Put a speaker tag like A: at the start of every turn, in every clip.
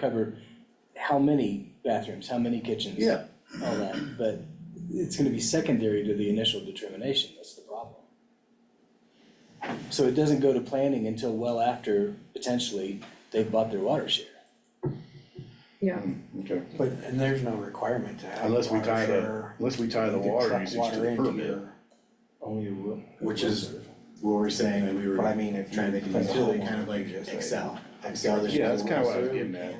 A: cover how many bathrooms, how many kitchens.
B: Yeah.
A: All that, but it's gonna be secondary to the initial determination, that's the problem. So it doesn't go to planning until well after, potentially, they've bought their water share.
C: Yeah,
D: Hmm,
B: Okay,
D: But, and there's no requirement to have.
B: unless we
D: water
B: tie the,
D: share.
B: unless we tie
D: You
B: the
D: can
B: water
D: truck
B: usage to
D: water
B: the
D: into
B: permit.
D: your-
A: Only will.
E: Which is what we're saying that we were
D: But I mean, if.
E: trying to make it
D: you put
E: utility
D: the
E: kind of
D: whole-
E: like
D: just
E: Excel. Excel, there's.
B: Yeah, that's
E: no
B: kinda what I was
E: rules.
B: getting at.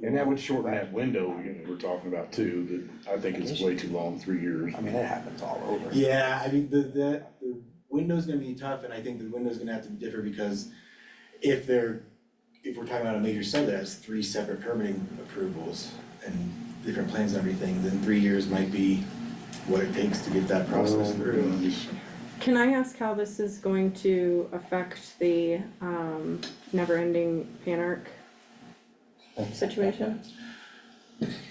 B: And that would shorten that window we we're talking about too, that I think it's way too long, three years.
D: I mean, it happens all over.
E: Yeah, I mean, the, the, the window's gonna be tough, and I think the window's gonna have to differ because if they're, if we're talking about a major sub that has three separate permitting approvals and different plans and everything, then three years might be what it takes to get that
B: Oh.
E: process through.
C: can I ask how this is going to affect the um never-ending Panark situation?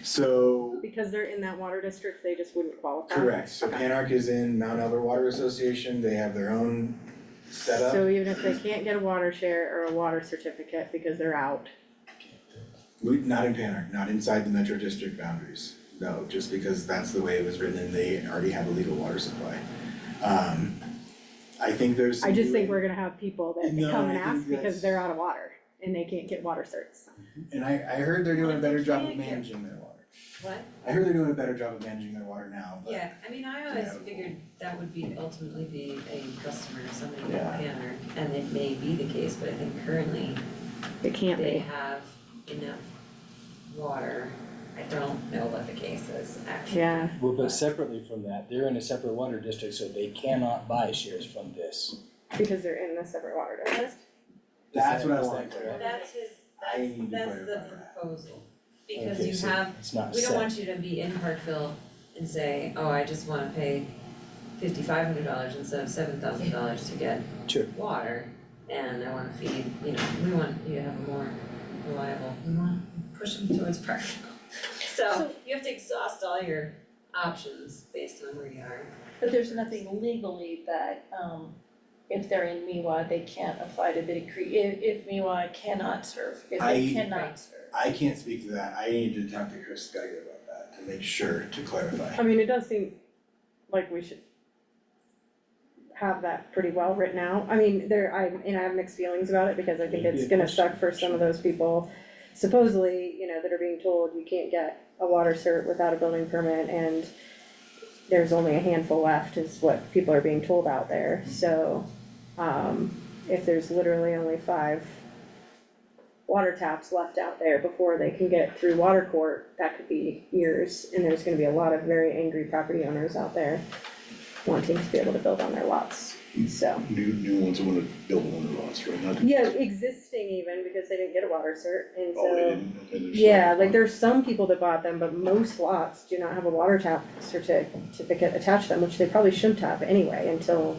E: So
C: Because they're in that water district, they just wouldn't qualify?
E: Correct, so Panarch is in Mount Albert Water Association, they have their own
C: So
E: setup.
C: even if they can't get a water share or a water certificate because they're out,
E: We, not in Panarch, not inside the metro district boundaries, no, just because that's the way it was written and they already have a legal water supply. Um, I think there's some
C: I just think
E: new-
C: we're gonna have people that
E: No,
C: come and
E: I think
C: ask
E: that's-
C: because they're out of water and they can't get water certs.
E: And I, I heard they're doing a better job of
F: Thank you.
E: managing their water.
F: What?
E: I heard they're doing a better job of managing their water now, but
F: Yeah, I mean, I always
E: Yeah.
F: figured that would be ultimately be a customer, somebody with
E: Yeah.
F: Banner, and it may be the case, but I think currently
C: They can't
F: they
C: be.
F: have enough water. I don't know what the case is actually.
C: Yeah,
A: Well, but separately from that, they're in a separate water district, so they cannot buy shares from this.
C: because they're in the separate water district.
E: that's
A: that
E: what I was
A: why-
E: thinking.
F: Well, that's his,
E: I need to
F: that's, that's the
E: clarify that.
F: proposal,
A: Okay,
F: because
A: so
F: you have,
A: It's not
F: we
A: set.
F: don't want you to be in Parkville and say, oh, I just wanna pay fifty-five hundred dollars instead of seven thousand dollars to get
A: Sure.
F: water, and I wanna feed, you know, we want you to have a more reliable, we wanna push them towards Parkville. So
G: So-
F: you have to exhaust all your options based on where you are.
G: But there's nothing legally that, um, if they're in MIWA, they can't apply to Biddy Creek, if, if MIWA cannot serve, if
E: I-
G: they cannot serve.
E: I can't speak to that, I need to talk to Chris Geiger about that to make sure, to clarify.
C: I mean, it does seem like we should have that pretty well written out. I mean, there, I, and I have mixed feelings about it because I think
A: Maybe
C: it's
A: a
C: gonna
A: question.
C: suck for some of those people supposedly, you know, that are being told you can't get a water cert without a building permit and there's only a handful left is what people are being told out there, so, um, if there's literally only five water taps left out there before they can get through water court, that could be years, and there's gonna be a lot of very angry property owners out there wanting to be able to build on their lots, so.
B: New, new ones wanna build on their lots, right? Not-
C: Yeah, existing even, because they didn't get a water cert, and so.
B: Oh, they didn't, okay, there's.
C: Yeah, like there's some people that bought them, but most lots do not have a water tap certi- certificate attached to them, which they probably shouldn't have anyway until,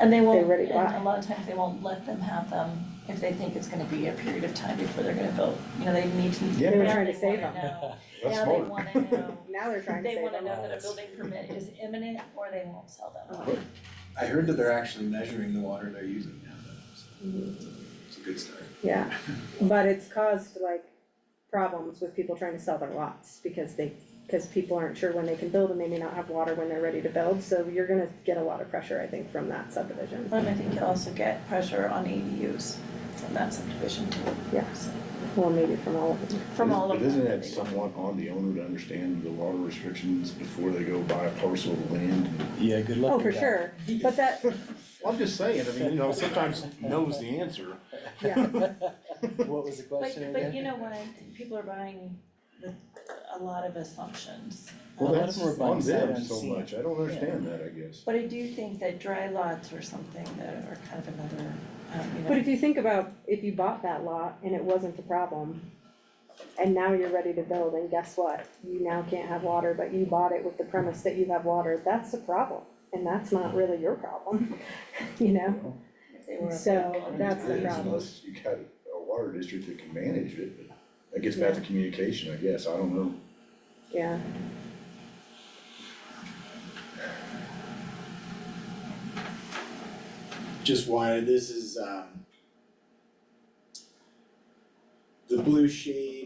G: And they won't,
C: They're ready to
G: and
C: buy.
G: a lot of times they won't let them have them if they think it's gonna be a period of time before they're gonna build, you know, they need to.
B: Yeah.
C: They were
G: now
C: trying to
G: they
C: save
G: wanna
C: them.
G: know.
B: That's
G: Now they
B: smart.
G: wanna know,
C: now they're trying to
G: they
C: save
G: wanna
C: them.
G: know that a building permit is imminent or they won't sell them.
E: I heard that they're actually measuring the water they're using now, though, so
F: Mm-hmm.
E: it's a good start.
C: Yeah, but it's caused like problems with people trying to sell their lots because they, because people aren't sure when they can build and they may not have water when they're ready to build, so you're gonna get a lot of pressure, I think, from that subdivision.
G: And Um, I think you'll also get pressure on ADUs from that subdivision too,
C: Yes, well, maybe from all of them.
G: from all of
B: But
G: them.
B: isn't that somewhat on the owner to understand the water restrictions before they go buy a parcel of land?
A: Yeah, good luck
C: Oh,
A: with
C: for
A: that.
C: sure, but that,
B: Well, I'm just saying, I mean, you know, sometimes knows the answer.
C: yeah,
A: What was the
G: But,
A: question again?
G: but you know what, people are buying the- a lot of assumptions.
A: Well,
G: Um,
A: that's more-
B: On them
A: Sight
B: so
A: unseen.
B: much, I don't understand that, I guess.
G: But I do think that dry lots or something that are kind of another, um, you know.
C: but if you think about, if you bought that lot and it wasn't a problem, and now you're ready to build, and guess what? You now can't have water, but you bought it with the premise that you have water, that's a problem, and that's not really your problem, you know?
G: if they were a
C: so
G: big company.
C: that's the
B: It is,
C: problem.
B: Unless you got a water district that can manage it, but that gets back to communication, I guess, I don't know.
C: Yeah.
E: just wanted, this is, um, the- The blue shade